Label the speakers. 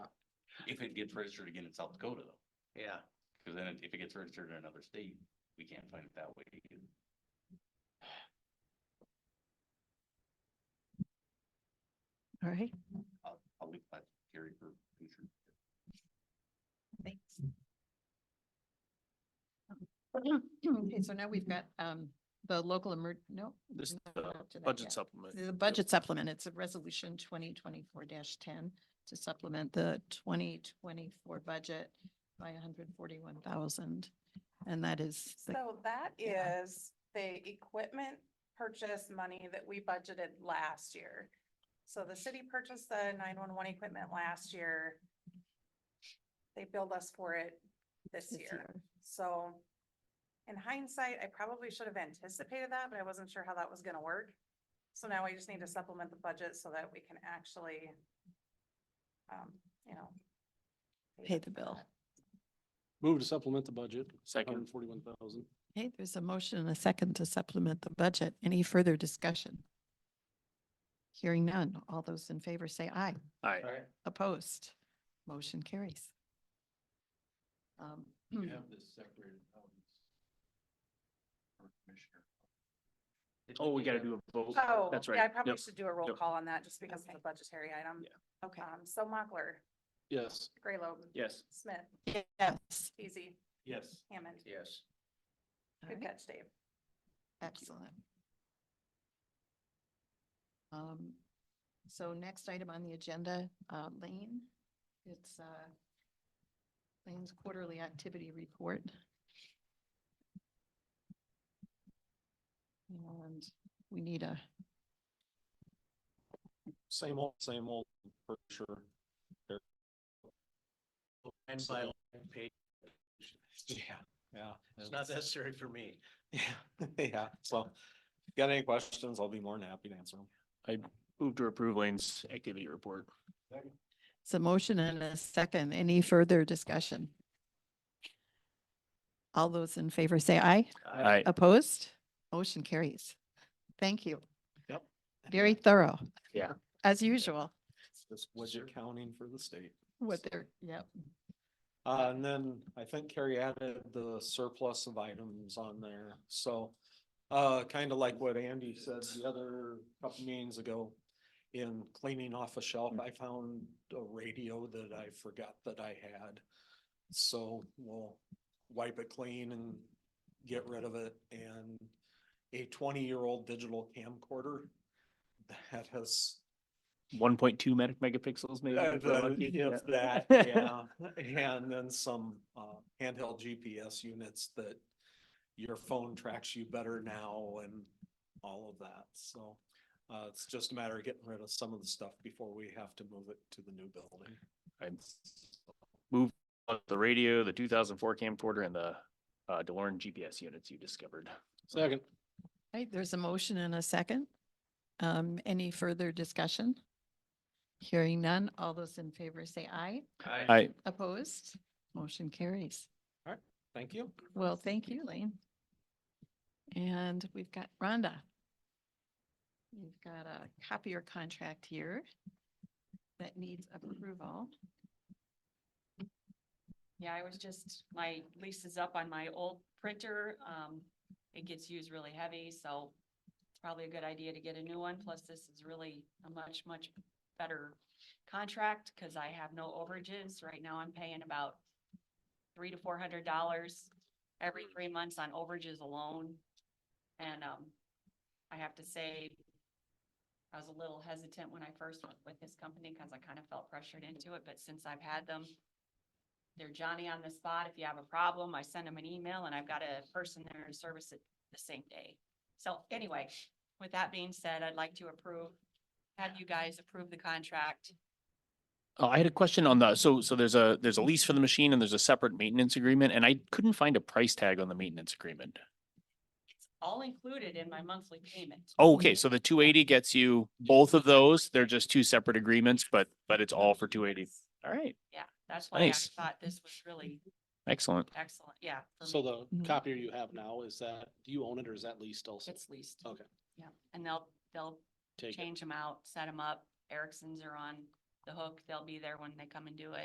Speaker 1: if it gets registered again in South Dakota though.
Speaker 2: yeah.
Speaker 1: Cause then if it gets registered in another state, we can't find it that way. either.
Speaker 3: All right,
Speaker 1: I'll, I'll leave that carry for future.
Speaker 3: thanks. Okay, so now we've got um the local emer, no.
Speaker 2: This,
Speaker 3: no,
Speaker 2: uh,
Speaker 3: we're not to that
Speaker 2: budget
Speaker 3: yet.
Speaker 2: supplement.
Speaker 3: The budget supplement, it's a resolution twenty twenty-four ten to supplement the twenty twenty-four budget by hundred forty-one thousand. And that is, the-
Speaker 4: So that
Speaker 3: Yeah.
Speaker 4: is the equipment purchase money that we budgeted last year. So the city purchased the nine-one-one equipment last year. They billed us for it this
Speaker 3: this
Speaker 4: year,
Speaker 3: year.
Speaker 4: so in hindsight, I probably should have anticipated that, but I wasn't sure how that was gonna work. So now I just need to supplement the budget so that we can actually, um, you know.
Speaker 3: Pay
Speaker 4: them
Speaker 3: the
Speaker 4: for
Speaker 3: bill.
Speaker 4: that.
Speaker 5: Move to supplement the budget, hundred
Speaker 2: Second,
Speaker 5: and forty-one thousand.
Speaker 3: Okay, there's a motion and a second to supplement the budget. Any further discussion? Hearing none. All those in favor say aye.
Speaker 2: aye.
Speaker 3: Opposed? Motion carries. Um,
Speaker 1: this separated out. Commissioner.
Speaker 2: Oh, we gotta do a vote.
Speaker 4: Oh,
Speaker 2: That's
Speaker 4: yeah, I
Speaker 2: right.
Speaker 4: probably
Speaker 2: Yep.
Speaker 4: should do a roll
Speaker 2: Yep.
Speaker 4: call on that just because it's a budgetary item.
Speaker 3: Okay,
Speaker 4: Um, so Mochler,
Speaker 5: Yes.
Speaker 4: Graylobe,
Speaker 2: Yes.
Speaker 4: Smith,
Speaker 3: yes.
Speaker 4: Easy,
Speaker 5: Yes.
Speaker 4: Hammond.
Speaker 2: Yes.
Speaker 3: All
Speaker 4: Good
Speaker 3: right.
Speaker 4: catch, Dave.
Speaker 3: Excellent. Um, so next item on the agenda, uh, Lane, it's, uh, Lane's quarterly activity report. And we need a,
Speaker 5: Same old, same old, for sure.
Speaker 6: Line by line page.
Speaker 5: Yeah, yeah.
Speaker 6: It's not necessary for me.
Speaker 5: Yeah, yeah. So if you got any questions, I'll be more than happy to answer them.
Speaker 2: Move to approve Lane's activity report.
Speaker 3: it's a motion and a second. Any further discussion? All those in favor say aye.
Speaker 2: Aye.
Speaker 3: Opposed? Motion carries. Thank you.
Speaker 5: Yep.
Speaker 3: Very thorough.
Speaker 2: Yeah.
Speaker 3: As usual,
Speaker 5: It's Just budget counting for the state.
Speaker 3: what they're, yep.
Speaker 5: Uh, and then I think Carrie added the surplus of items on there, so, uh, kind of like what Andy said the other couple meetings ago. In cleaning off a shelf, I found a radio that I forgot that I had. So we'll wipe it clean and get rid of it and a twenty-year-old digital camcorder. That has
Speaker 2: One point two megapixels maybe.
Speaker 5: uh,
Speaker 2: if we're
Speaker 5: the-
Speaker 2: lucky. Yeah.
Speaker 5: If that, yeah, and then some uh handheld GPS units that your phone tracks you better now and all of that, so. Uh, it's just a matter of getting rid of some of the stuff before we have to move it to the new building.
Speaker 2: I Move on the radio, the two thousand four camcorder and the uh DeLorean GPS units you discovered.
Speaker 5: Second.
Speaker 3: Right, there's a motion and a second. Um, any further discussion? Hearing none, all those in favor say aye.
Speaker 2: Aye.
Speaker 3: Opposed? Motion carries.
Speaker 5: Thank you.
Speaker 3: Well, thank you, Lane. And we've got Rhonda. You've got a copier contract here that needs approval.
Speaker 7: Yeah, I was just, my lease is up on my old printer. Um, it gets used really heavy, so it's probably a good idea to get a new one. Plus, this is really a much, much better contract because I have no overages. Right now, I'm paying about three to four hundred dollars every three months on overages alone. And, um, I have to say, I was a little hesitant when I first went with this company because I kind of felt pressured into it, but since I've had them, they're Johnny on the spot. If you have a problem, I send them an email and I've got a person there to service it the same day. So anyway, with that being said, I'd like to approve, have you guys approve the contract.
Speaker 2: Uh, I had a question on the, so, so there's a, there's a lease for the machine and there's a separate maintenance agreement and I couldn't find a price tag on the maintenance agreement.
Speaker 7: It's all included in my monthly payment.
Speaker 2: Oh, Okay, so the two eighty gets you both of those. They're just two separate agreements, but, but it's all for two eighty. All right,
Speaker 7: Yeah, that's why I
Speaker 2: Nice.
Speaker 7: thought this was really
Speaker 2: excellent.
Speaker 7: excellent. Yeah. for me.
Speaker 6: So the
Speaker 3: Mhm.
Speaker 6: copier you have now, is that, do you own it or is that leased also?
Speaker 7: It's leased.
Speaker 6: Okay.
Speaker 7: Yeah, and they'll, they'll
Speaker 6: Take it.
Speaker 7: change them out, set them up. Ericssons are on the hook. They'll be there when they come and do it.